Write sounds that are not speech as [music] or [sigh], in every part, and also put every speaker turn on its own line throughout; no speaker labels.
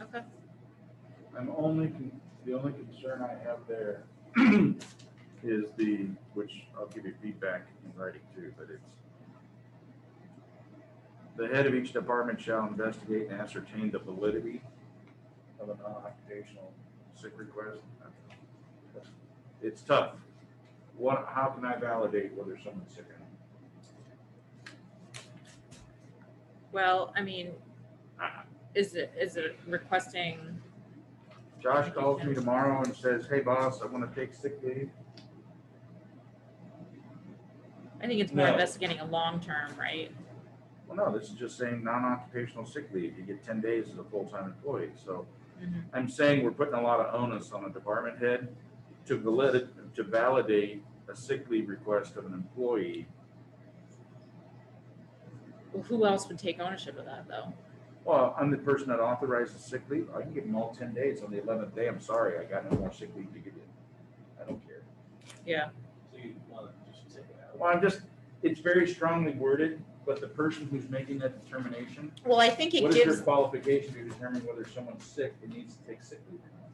Okay.
I'm only, con- the only concern I have there [clears throat] is the, which I'll give you feedback in writing too, but it's the head of each department shall investigate and ascertain the validity of a non-occupational sick request. It's tough. What, how can I validate whether someone's sick or not?
Well, I mean, uh,
Ah.
is it, is it requesting,
Josh calls me tomorrow and says, hey boss, I want to take sick leave.
I think it's more
No.
investigating a long term, right?
Well, no, this is just saying non-occupational sick leave, you get ten days as a full-time employee, so.
Mhm.
I'm saying we're putting a lot of onus on the department head to valid, to validate a sick leave request of an employee.
Well, who else would take ownership of that though?
Well, I'm the person that authorizes sick leave, I can give them all ten days, on the eleventh day, I'm sorry, I got no more sick leave to give you. I don't care.
Yeah,
So you want to just take it out?
Well, I'm just, it's very strongly worded, but the person who's making that determination,
well, I think it
what is your
gives,
qualification to determine whether someone's sick and needs to take sick leave or not?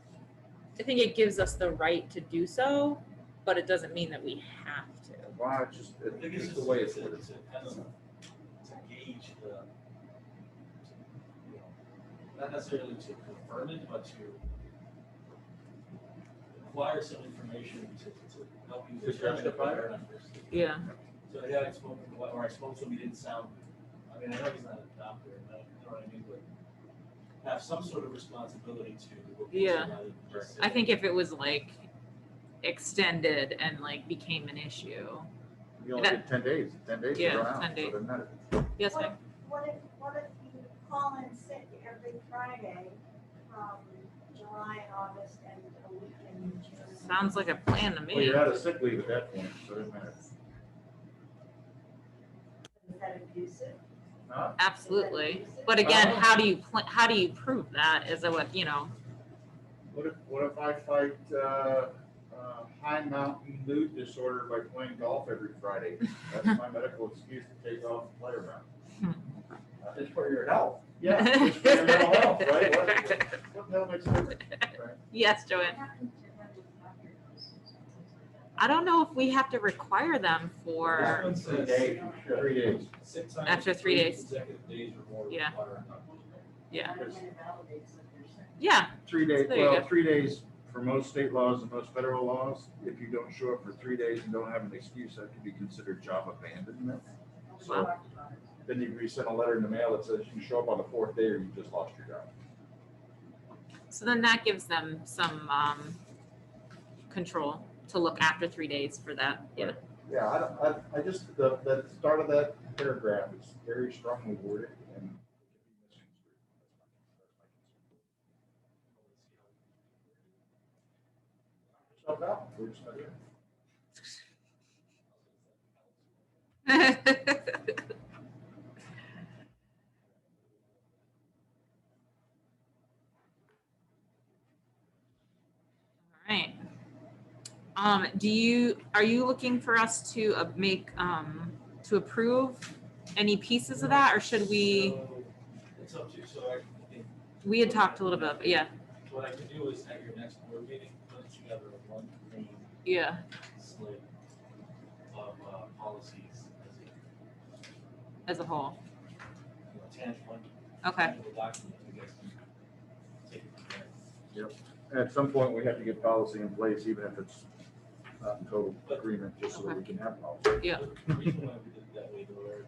I think it gives us the right to do so, but it doesn't mean that we have to.
Wow, it's just,
I think
it's
it's
just the way it's
to-
worded.
To kind of, to gauge the, you know, not necessarily to confirm it, but to acquire some information to, to help you
To
determine if
justify it.
whether or not. there's-
Yeah.
So, yeah, I spoke, to the- or I spoke to him, he didn't sound, I mean, I know he's not a doctor, and I don't you know what I mean, but have some sort of responsibility to. what goes
Yeah.
on rather than just
I
say-
think if it was like extended and like became an issue.
You only get ten days, ten days to
Yeah,
go out,
10
so
days.
it doesn't matter.
Yes,
What
ma'am.
if, what if, what if you call in sick every Friday from July and August and a week in June?
Sounds like a plan to
Well,
me.
you're out of sick leave at that point, so it doesn't matter.
Is that abusive?
Huh?
Absolutely. But again, how do you plan, how do you prove that is a what, you know,
What if, what if I fight, uh, uh, high mountain mood disorder by playing golf every Friday? That's my medical excuse to take off and play around. Uh, It's for your health. Yeah,
[laughs]
it's for your mental health, right? What, what the hell makes a difference, right?
yes, Joanne.
What happened to when we got your license and things like
I don't know if we have to require them
This
for,
one
Three
says-
days, three days.
Six times.
After three days.
Consecutive days or more.
Yeah.
require an
that?
yeah,
I don't think it validates that you're sick.
yeah,
Three days,
There you
well,
go.
three days for most state laws and most federal laws, if you don't show up for three days and don't have an excuse, that could be considered job abandonment.
We
So-
talked about it.
Then you resend a letter in the mail that says you show up on the fourth day or you just lost your job.
So then that gives them some, um, control to look after three days for that. Yeah,
Yeah, I, don't- I, I just, the, the start of that paragraph is very strongly worded and. So, no, we're just not here.
[laughs] Alright. Um, do you, are you looking for us to uh, make, um, to approve any pieces of that, or should we,
So, It's up to you, so I think
we had talked a little bit, yeah,
what I can do is at your next board meeting, put together a one clean
yeah,
slate of uh, policies as a, you
as a whole,
know, tangible.
okay,
tangible document, I guess. and Take it from there.
At some point, we have to get policy in place, even if it's not in total agreement, just so that we can have policy.
Yeah.
The reason why we did it that way though, Eric,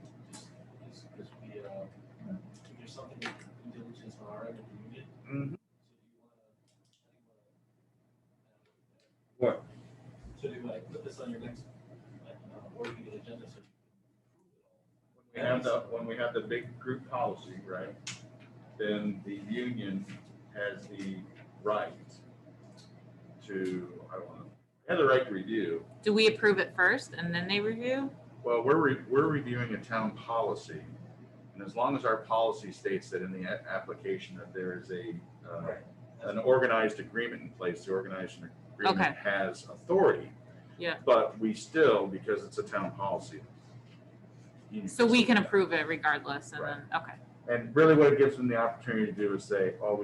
is because we, uh, there's something with due diligence on our end of the unit, so do you wanna, I think, uh,
What?
So do I put this on your next, like, uh, board meeting agenda, so.
We have the, when we have the big group policy, right, then the union has the right to, I don't know, have the right to review.
do we approve it first and then they review?
Well, we're, re- we're reviewing a town policy, and as long as our policy states that in the a- application that there is a, uh, an organized agreement in place, the organized
Okay.
agreement has authority.
Yeah.
But we still, because it's a town policy. you
So we can approve it regardless, and
Right.
then, okay.
And really what it gives them the opportunity to do is say, oh,